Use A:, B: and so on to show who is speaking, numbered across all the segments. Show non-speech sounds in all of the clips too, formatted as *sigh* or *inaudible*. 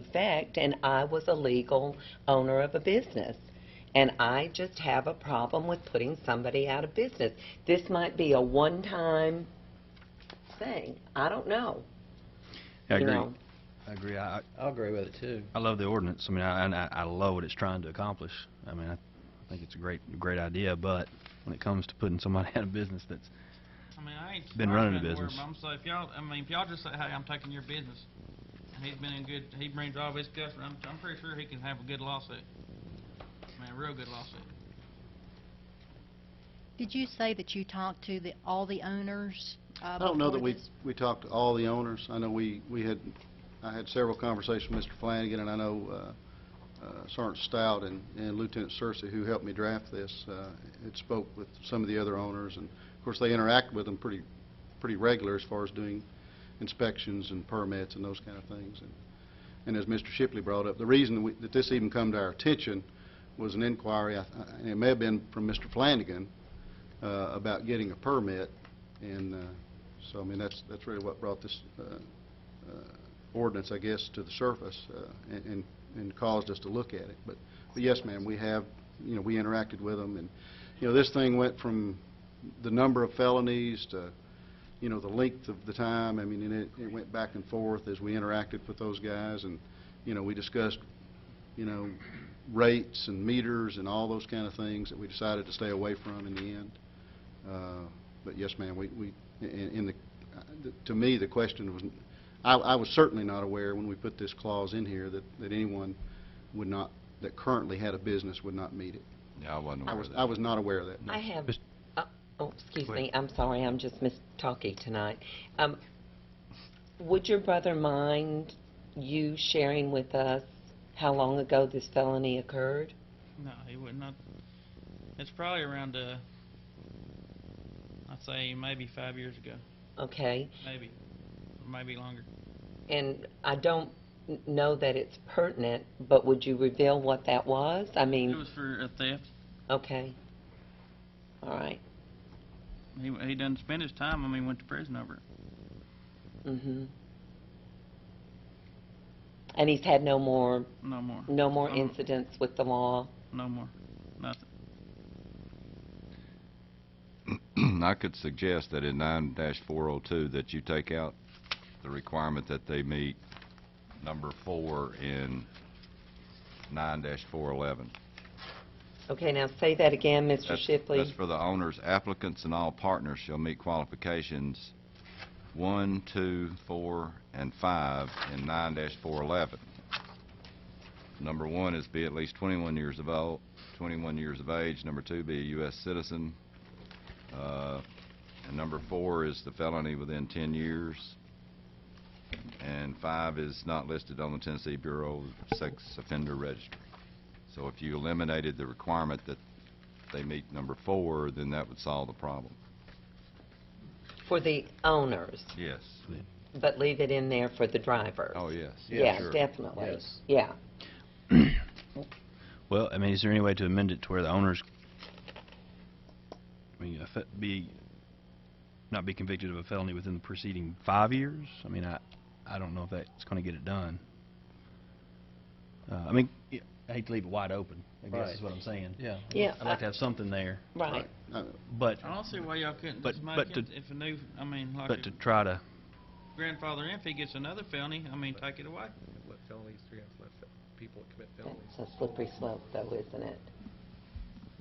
A: effect, and I was a legal owner of a business. And I just have a problem with putting somebody out of business. This might be a one-time thing. I don't know.
B: I
A: you
B: agree.
A: know.
B: I agree. I, I-
C: I agree with it too.
B: I love the ordinance. I mean, I, and I, I love what it's trying to accomplish. I mean, I think it's a great, great idea, but when it comes to putting somebody *laughs* out of business that's,
D: I mean, I ain't.
B: Been
D: I
B: running a
D: ain't been to where
B: business.
D: I'm, so if y'all, I mean, if y'all just say, hey, I'm taking your business, and he's been in good, he brings all his customers, I'm, I'm pretty sure he can have a good lawsuit. I mean, a real good lawsuit.
E: Did you say that you talked to the, all the owners? uh,
F: I don't know that we, we talked to all the owners. I know we, we had, I had several conversations with Mr. Flanagan, and I know uh, uh, Sergeant Stout and and Lieutenant Searcy, who helped me draft this, uh, had spoke with some of the other owners, and of course, they interact with them pretty, pretty regular as far as doing inspections and permits and those kind of things. And- And as Mr. Shipley brought up, the reason we- that this even come to our attention was an inquiry, I th- and it may have been from Mr. Flanagan, uh, about getting a permit, and uh, so, I mean, that's, that's really what brought this uh, uh, ordinance, I guess, to the surface uh, and- and, and caused us to look at it. But, but yes, ma'am, we have, you know, we interacted with them, and, you know, this thing went from the number of felonies to, you know, the length of the time, I mean, and it, it went back and forth as we interacted with those guys, and, you know, we discussed, you know, rates and meters and all those kind of things that we decided to stay away from in the end. Uh, But yes, ma'am, we, we, in, in the, uh, th- to me, the question was, I, I was certainly not aware when we put this clause in here that, that anyone would not, that currently had a business would not meet it.
G: Yeah, I wasn't
F: I
G: aware
F: was,
G: of that.
F: I was not aware of that.
A: I have,
B: Mis-
A: uh, oh, excuse
B: Go ahead.
A: me, I'm sorry, I'm just miss talking tonight. Um, Would your brother mind you sharing with us how long ago this felony occurred?
D: No, he would not. It's probably around, uh, I'd say maybe five years ago,
A: Okay,
D: maybe, maybe longer.
A: and I don't n- know that it's pertinent, but would you reveal what that was? I
D: It
A: mean,
D: was for a theft.
A: okay, all right,
D: He, he done spent his time, I mean, went to prison over it.
A: mm-hmm. And he's had no more,
D: No more,
A: no more
D: Um,
A: incidents with the law?
D: no more, nothing.
G: *clears throat* I could suggest that in nine four oh two, that you take out the requirement that they meet number four in nine four eleven.
A: Okay, now say that again, Mr.
G: That's-
A: Shipley.
G: That's for the owners, applicants, and all partners shall meet qualifications one, two, four, and five in nine four eleven. Number one is be at least twenty-one years of old, twenty-one years of age. Number two, be a U.S. citizen. Uh, And number four is the felony within ten years. And five is not listed on the Tennessee Bureau of Sex Offender Registry. So if you eliminated the requirement that they meet number four, then that would solve the problem.
A: For the owners,
G: Yes.
A: but leave it in there for the drivers.
G: Oh, yes.
A: Yeah,
G: Sure.
A: definitely.
C: Yes.
A: Yeah.
B: well, I mean, is there any way to amend it to where the owners, I mean, if it be, not be convicted of a felony within the preceding five years? I mean, I, I don't know if that's gonna get it done. Uh, I mean, y- I hate to leave it wide open, I guess is
C: Right.
B: what I'm saying.
C: Yeah.
A: Yeah,
B: I'd like to have something there,
A: Right.
F: Uh,
B: but,
D: I don't see why y'all couldn't
B: But-
D: just make
B: but to-
D: it, if a new, I mean, like.
B: but
D: if-
B: to try to
D: grandfather in if he gets another felony, I mean, take it away.
H: let felonies, three out of five people that commit felonies.
A: That's a slippery slope though, isn't it?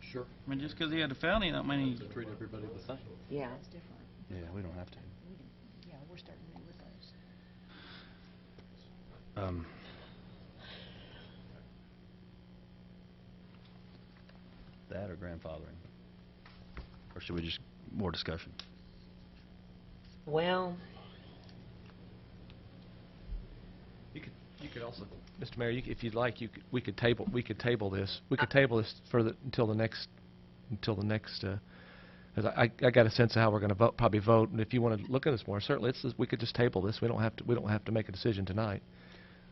H: Sure.
D: I mean, just 'cause he had a felony, don't mean
H: To
D: he,
H: treat everybody the same.
A: Yeah.
E: That's different.
B: Yeah, we don't have to.
E: We didn't- Yeah, we're starting new with those.
B: Um, That or grandfathering? Or should we just, more discussion?
A: Well,
H: You could, you could also, Mr. Mayor, you c- if you'd like, you could, we could table, we could table this. We could table this for the, until the next, until the next, uh, 'cause I, I I got a sense of how we're gonna vote, probably vote, and if you wanna look at this more, certainly, it's, we could just table this. We don't have to, we don't have to make a decision tonight.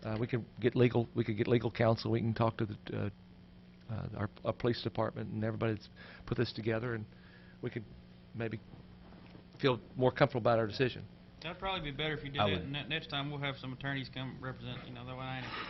H: Uh, we can get legal, we could get legal counsel, we can talk to the, uh, uh, our, our police department and everybody that's put this together, and we could maybe feel more comfortable about our decision.
D: that'd probably be better if you did
B: I
D: that.
B: would.
D: Ne- Next time, we'll have some attorneys come represent, you know, that way I ain't